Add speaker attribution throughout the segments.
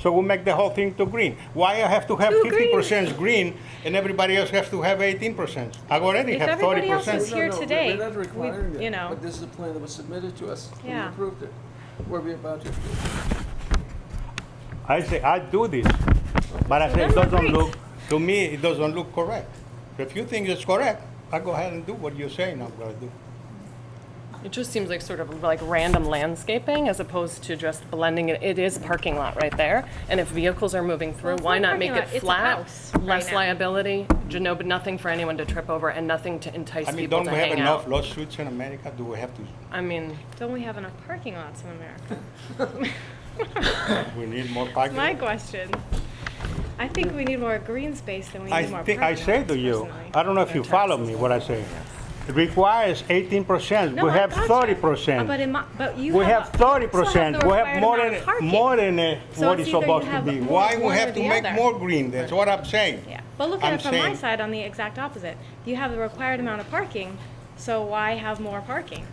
Speaker 1: So we make the whole thing to green. Why I have to have
Speaker 2: To
Speaker 1: fifty
Speaker 2: green.
Speaker 1: percent green and everybody else has to have eighteen percent? I already
Speaker 2: If
Speaker 1: have thirty
Speaker 2: everybody else
Speaker 1: percent.
Speaker 2: is here
Speaker 3: No, no,
Speaker 2: today,
Speaker 3: We're not
Speaker 2: we-
Speaker 3: requiring
Speaker 2: you
Speaker 3: it,
Speaker 2: know.
Speaker 3: but this is the plan that was submitted to us. and
Speaker 2: Yeah.
Speaker 3: We approved it. Were we about to?
Speaker 1: I say, I do this, but I say it
Speaker 2: So then
Speaker 1: doesn't
Speaker 2: we're
Speaker 1: look, to me, it doesn't look correct. If you think it's correct, I go ahead and do what you're saying I'm gonna do.
Speaker 4: It just seems like sort of like random landscaping as opposed to just blending it. It is parking lot right there. And if vehicles are moving through,
Speaker 2: Well, it's
Speaker 4: why
Speaker 2: not a
Speaker 4: not make
Speaker 2: parking
Speaker 4: it
Speaker 2: lot, it's a
Speaker 4: flat?
Speaker 2: house right
Speaker 4: Less
Speaker 2: now.
Speaker 4: liability, you know, but nothing for anyone to trip over and nothing to entice
Speaker 1: I mean,
Speaker 4: people
Speaker 1: don't
Speaker 4: to
Speaker 1: we have
Speaker 4: hang
Speaker 1: enough
Speaker 4: out.
Speaker 1: lawsuits in America? Do we have to,
Speaker 4: I mean,
Speaker 2: Don't we have enough parking lots in America?
Speaker 1: we need more parking?
Speaker 2: My question. I think we need more green space than we
Speaker 1: I
Speaker 2: need more parking
Speaker 1: think, I
Speaker 2: lots
Speaker 1: say to you,
Speaker 2: personally.
Speaker 1: I don't know if you follow me, what I say. It requires eighteen percent,
Speaker 2: No,
Speaker 1: we
Speaker 2: I
Speaker 1: have
Speaker 2: gotcha.
Speaker 1: thirty
Speaker 2: Uh, But
Speaker 1: percent.
Speaker 2: in my, but you
Speaker 1: We
Speaker 2: have.
Speaker 1: have
Speaker 2: a-
Speaker 1: thirty
Speaker 2: you still have
Speaker 1: percent,
Speaker 2: the
Speaker 1: we have
Speaker 2: required
Speaker 1: more
Speaker 2: amount
Speaker 1: than,
Speaker 2: of parking.
Speaker 1: more than uh,
Speaker 2: So
Speaker 1: what
Speaker 2: it's
Speaker 1: is
Speaker 2: either you
Speaker 1: supposed to
Speaker 2: have
Speaker 1: be.
Speaker 2: more
Speaker 1: Why
Speaker 2: of
Speaker 1: we
Speaker 2: one or
Speaker 1: have to
Speaker 2: the
Speaker 1: make
Speaker 2: other.
Speaker 1: more green, that's what I'm saying.
Speaker 2: Yeah, but look at
Speaker 1: I'm
Speaker 2: it from my
Speaker 1: saying-
Speaker 2: side on the exact opposite. You have the required amount of parking, so why have more parking?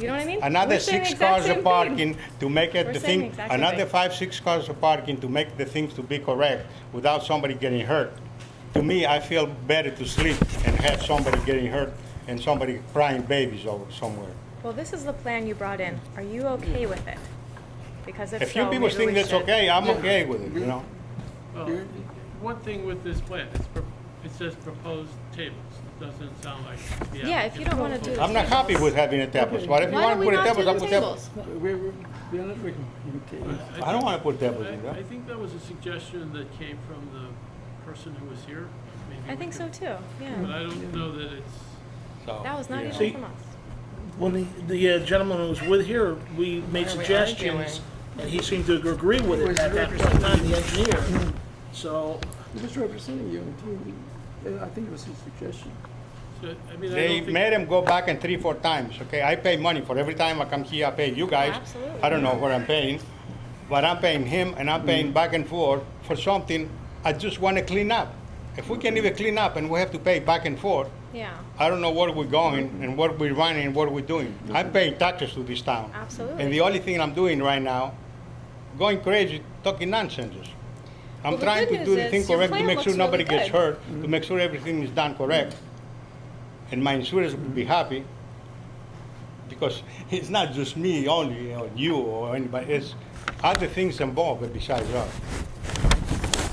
Speaker 2: You know what I mean?
Speaker 1: Another
Speaker 2: We're saying the
Speaker 1: six
Speaker 2: exact
Speaker 1: cars
Speaker 2: same
Speaker 1: of
Speaker 2: thing.
Speaker 1: parking to make
Speaker 2: We're
Speaker 1: it the
Speaker 2: saying the
Speaker 1: thing,
Speaker 2: exact same
Speaker 1: another
Speaker 2: thing.
Speaker 1: five, six cars of parking to make the things to be correct without somebody getting hurt. To me, I feel better to sleep and have somebody getting hurt and somebody crying babies over somewhere.
Speaker 2: Well, this is the plan you brought in. Are you okay with it? Because if
Speaker 1: If you
Speaker 2: so,
Speaker 1: people
Speaker 2: maybe we
Speaker 1: think that's
Speaker 2: should-
Speaker 1: okay, I'm okay with it, you know?
Speaker 5: Well,
Speaker 3: Here?
Speaker 5: One thing with this plan, it's, pro- it says proposed tables, it doesn't sound like. the
Speaker 2: Yeah, if you don't wanna
Speaker 5: applicant
Speaker 2: do
Speaker 5: proposed-
Speaker 2: the
Speaker 1: I'm not happy with having a tables, but if you
Speaker 2: Why
Speaker 1: want to
Speaker 2: don't we
Speaker 1: put a
Speaker 2: not do
Speaker 1: tables, I
Speaker 2: the
Speaker 1: put tables.
Speaker 2: tables?
Speaker 3: We, we, we don't, we can, we can take it.
Speaker 1: I don't want to put tables in
Speaker 5: I I
Speaker 1: there.
Speaker 5: think that was a suggestion that came from the person who was here. Maybe
Speaker 2: I
Speaker 5: we
Speaker 2: think so
Speaker 5: could-
Speaker 2: too,
Speaker 5: But
Speaker 2: yeah.
Speaker 5: I don't know that it's,
Speaker 1: so,
Speaker 2: That was not
Speaker 1: you know.
Speaker 2: even from us.
Speaker 6: When the, the uh, gentleman who was with here, we made
Speaker 4: What are we
Speaker 6: suggestions, and he seemed to agree with it at that point, in time, the engineer. So,
Speaker 3: He was representing you, and he- uh, I think it was his suggestion.
Speaker 5: so, I mean, I
Speaker 1: They
Speaker 5: don't think.
Speaker 1: made him go back and three, four times, okay? I pay money for every time I come here, I pay you guys.
Speaker 2: Absolutely.
Speaker 1: I don't know what I'm paying, but I'm paying him and I'm
Speaker 5: Mm-hmm.
Speaker 1: paying back and forth for something I just want to clean up. If we can even clean up and we have to pay back and forth,
Speaker 2: Yeah,
Speaker 1: I don't know where we're going and what we're running and what we're doing. I'm paying taxes to this town.
Speaker 2: Absolutely.
Speaker 1: And the only thing I'm doing right now, going crazy, talking nonsense. I'm
Speaker 2: Well, the
Speaker 1: trying
Speaker 2: good
Speaker 1: to
Speaker 2: news
Speaker 1: do the
Speaker 2: is
Speaker 1: thing
Speaker 2: your
Speaker 1: correct to
Speaker 2: plan
Speaker 1: make sure
Speaker 2: looks
Speaker 1: nobody
Speaker 2: really
Speaker 1: gets
Speaker 2: good.
Speaker 1: hurt, to make sure everything is done correct. And my insurers will be happy because it's not just me only or you or anybody. It's other things involved besides us.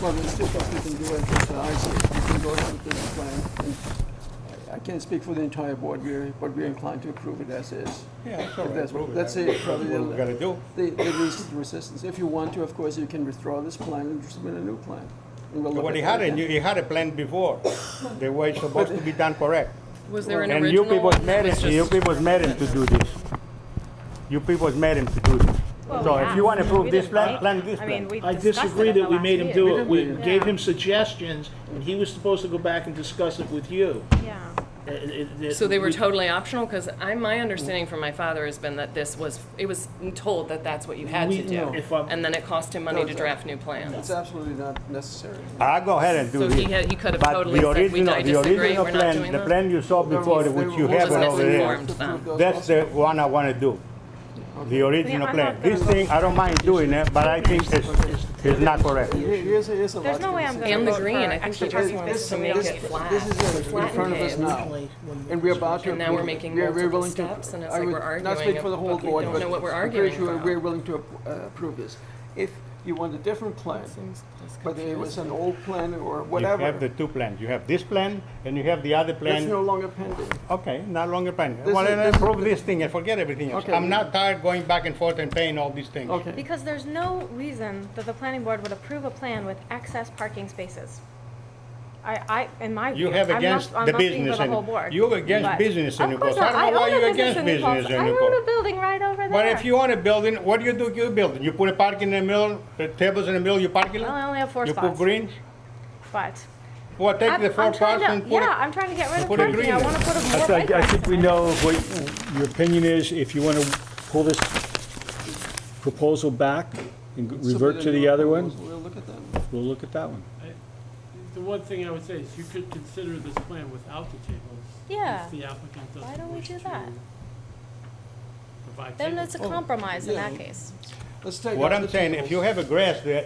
Speaker 3: Well, there's two things we can do at this time. So we can go ahead with this plan. and I- I can't speak for the entire board, we're, but we're inclined to approve it as is.
Speaker 1: Yeah, it's all
Speaker 3: If
Speaker 1: right,
Speaker 3: that's,
Speaker 1: approve it.
Speaker 3: that's it,
Speaker 1: That's
Speaker 3: probably
Speaker 1: what we gotta
Speaker 3: the,
Speaker 1: do.
Speaker 3: the the least resistance. If you want to, of course, you can withdraw this plan and submit a new plan. and we'll look
Speaker 1: What
Speaker 3: at
Speaker 1: he
Speaker 3: that
Speaker 1: had, a
Speaker 3: again.
Speaker 1: new- he had a plan before. The way it's supposed to be done correct.
Speaker 4: was there an
Speaker 1: And you
Speaker 4: original?
Speaker 1: people
Speaker 4: one that
Speaker 1: made
Speaker 4: was
Speaker 1: him, you
Speaker 4: just-
Speaker 1: people made him to do this. You people made him to do this.
Speaker 2: Well,
Speaker 1: So
Speaker 2: we
Speaker 1: if
Speaker 2: have.
Speaker 1: you want to
Speaker 2: We
Speaker 1: prove this
Speaker 2: didn't
Speaker 1: plan,
Speaker 2: make-
Speaker 1: plan this
Speaker 2: I mean,
Speaker 1: plan.
Speaker 2: we
Speaker 6: I
Speaker 2: discussed it
Speaker 6: disagree
Speaker 2: at the
Speaker 6: that we
Speaker 2: last
Speaker 6: made him
Speaker 2: meeting.
Speaker 6: do it. We
Speaker 3: Yeah.
Speaker 6: gave him suggestions, and he was supposed to go back and discuss it with you.
Speaker 2: Yeah,
Speaker 6: It- it- it-
Speaker 4: So they were
Speaker 6: we-
Speaker 4: totally optional? Because I, my understanding from my father has been that this was, it was told that that's what you had to
Speaker 6: We- no,
Speaker 4: do.
Speaker 6: if I'm-
Speaker 4: And then it cost him money
Speaker 3: No,
Speaker 4: to
Speaker 3: no.
Speaker 4: draft new plans.
Speaker 3: It's absolutely not necessary.
Speaker 1: I go ahead and do
Speaker 4: So
Speaker 1: this.
Speaker 4: he had- he could have
Speaker 1: But
Speaker 4: totally
Speaker 1: the
Speaker 4: said, we-
Speaker 1: original-
Speaker 4: I
Speaker 1: the
Speaker 4: disagree,
Speaker 1: original
Speaker 4: we're not
Speaker 1: plan-
Speaker 4: doing
Speaker 1: The
Speaker 4: that.
Speaker 1: plan you saw before, which you have
Speaker 4: Wasn't
Speaker 1: over there,
Speaker 4: misinformed then.
Speaker 1: that's the one I want to do. The original
Speaker 2: I'm
Speaker 1: plan.
Speaker 2: not
Speaker 1: This
Speaker 2: gonna-
Speaker 1: thing, I don't mind doing it, but I think it's, it's not correct.
Speaker 3: Here- Here's, a- here's a lot.
Speaker 2: There's no
Speaker 3: to
Speaker 2: way I'm
Speaker 3: consider.
Speaker 2: gonna
Speaker 4: And the
Speaker 2: vote
Speaker 4: green,
Speaker 2: for
Speaker 4: I think
Speaker 2: extra
Speaker 4: he just
Speaker 2: parking
Speaker 4: wants
Speaker 3: This-
Speaker 4: to
Speaker 2: spaces.
Speaker 4: make
Speaker 3: this-
Speaker 4: it flat.
Speaker 3: This is in front of us
Speaker 4: Flatten
Speaker 3: now,
Speaker 4: it.
Speaker 6: Originally, when
Speaker 3: and we're about to.
Speaker 4: And now we're making
Speaker 3: we're- we're
Speaker 4: multiple
Speaker 3: willing to-
Speaker 4: steps, and it's
Speaker 3: I
Speaker 4: like
Speaker 3: would
Speaker 4: we're arguing
Speaker 3: Not speak for the whole
Speaker 4: about- we
Speaker 3: board,
Speaker 4: don't
Speaker 3: but.
Speaker 4: know what we're
Speaker 3: I'm pretty
Speaker 4: arguing
Speaker 3: sure
Speaker 4: about.
Speaker 3: We're willing to ap- uh, approve this. If you want a different plan, but it was an old plan or
Speaker 1: You have the
Speaker 3: whatever,
Speaker 1: two plans. You have this plan and you have the other
Speaker 3: that's no
Speaker 1: plan.
Speaker 3: longer pending.
Speaker 1: Okay, no longer plan.
Speaker 3: This
Speaker 1: Well,
Speaker 3: is-
Speaker 1: then
Speaker 3: this is
Speaker 1: approve this thing and forget everything else.
Speaker 3: Okay.
Speaker 1: I'm not tired going back and forth and paying all these things.
Speaker 3: Okay.
Speaker 2: Because there's no reason that the planning board would approve a plan with excess parking spaces. I, I, in my view,
Speaker 1: You
Speaker 2: I'm
Speaker 1: have
Speaker 2: not,
Speaker 1: against
Speaker 2: I'm
Speaker 1: the
Speaker 2: not speaking
Speaker 1: business
Speaker 2: for the
Speaker 1: and-
Speaker 2: whole board.
Speaker 1: you're against
Speaker 2: but-
Speaker 1: business in
Speaker 2: Of
Speaker 1: New
Speaker 2: course
Speaker 1: Paltz. I
Speaker 2: not.
Speaker 1: don't know why
Speaker 2: own a
Speaker 1: you're
Speaker 2: business
Speaker 1: against
Speaker 2: in New
Speaker 1: business
Speaker 2: Paltz.
Speaker 1: in
Speaker 2: I
Speaker 1: New
Speaker 2: own
Speaker 1: Paltz.
Speaker 2: a building right over there.
Speaker 1: But if you own a building, what do you do to your building? You put a park in the middle, uh, tables in the middle, you parking
Speaker 2: Well, I
Speaker 1: lot?
Speaker 2: only have four
Speaker 1: You put
Speaker 2: spots,
Speaker 1: greens?
Speaker 2: but.
Speaker 1: Well, take
Speaker 2: I'm-
Speaker 1: the four
Speaker 2: I'm trying
Speaker 1: parts
Speaker 2: to-
Speaker 1: and put
Speaker 2: Yeah,
Speaker 1: it.
Speaker 2: I'm trying to get rid of
Speaker 1: put it
Speaker 2: parking.
Speaker 1: green
Speaker 2: I
Speaker 1: then.
Speaker 2: wanna put a
Speaker 7: I
Speaker 2: more bike
Speaker 7: think, I
Speaker 2: racks
Speaker 7: think we
Speaker 2: in there.
Speaker 7: know what your opinion is. If you want to pull this proposal back and revert to the other one,
Speaker 3: We'll look at them.
Speaker 7: we'll look at that one.
Speaker 5: The one thing I would say is you could consider this plan without the tables.
Speaker 2: Yeah.
Speaker 5: If the applicant doesn't
Speaker 2: Why don't we
Speaker 5: wish
Speaker 2: do
Speaker 5: to
Speaker 2: that?
Speaker 5: Provide tables.
Speaker 2: Then it's a compromise in that
Speaker 3: yeah.
Speaker 2: case.
Speaker 3: Let's take.
Speaker 1: What
Speaker 3: out
Speaker 1: I'm
Speaker 3: the
Speaker 1: saying, if
Speaker 3: tables.
Speaker 1: you have a grass there,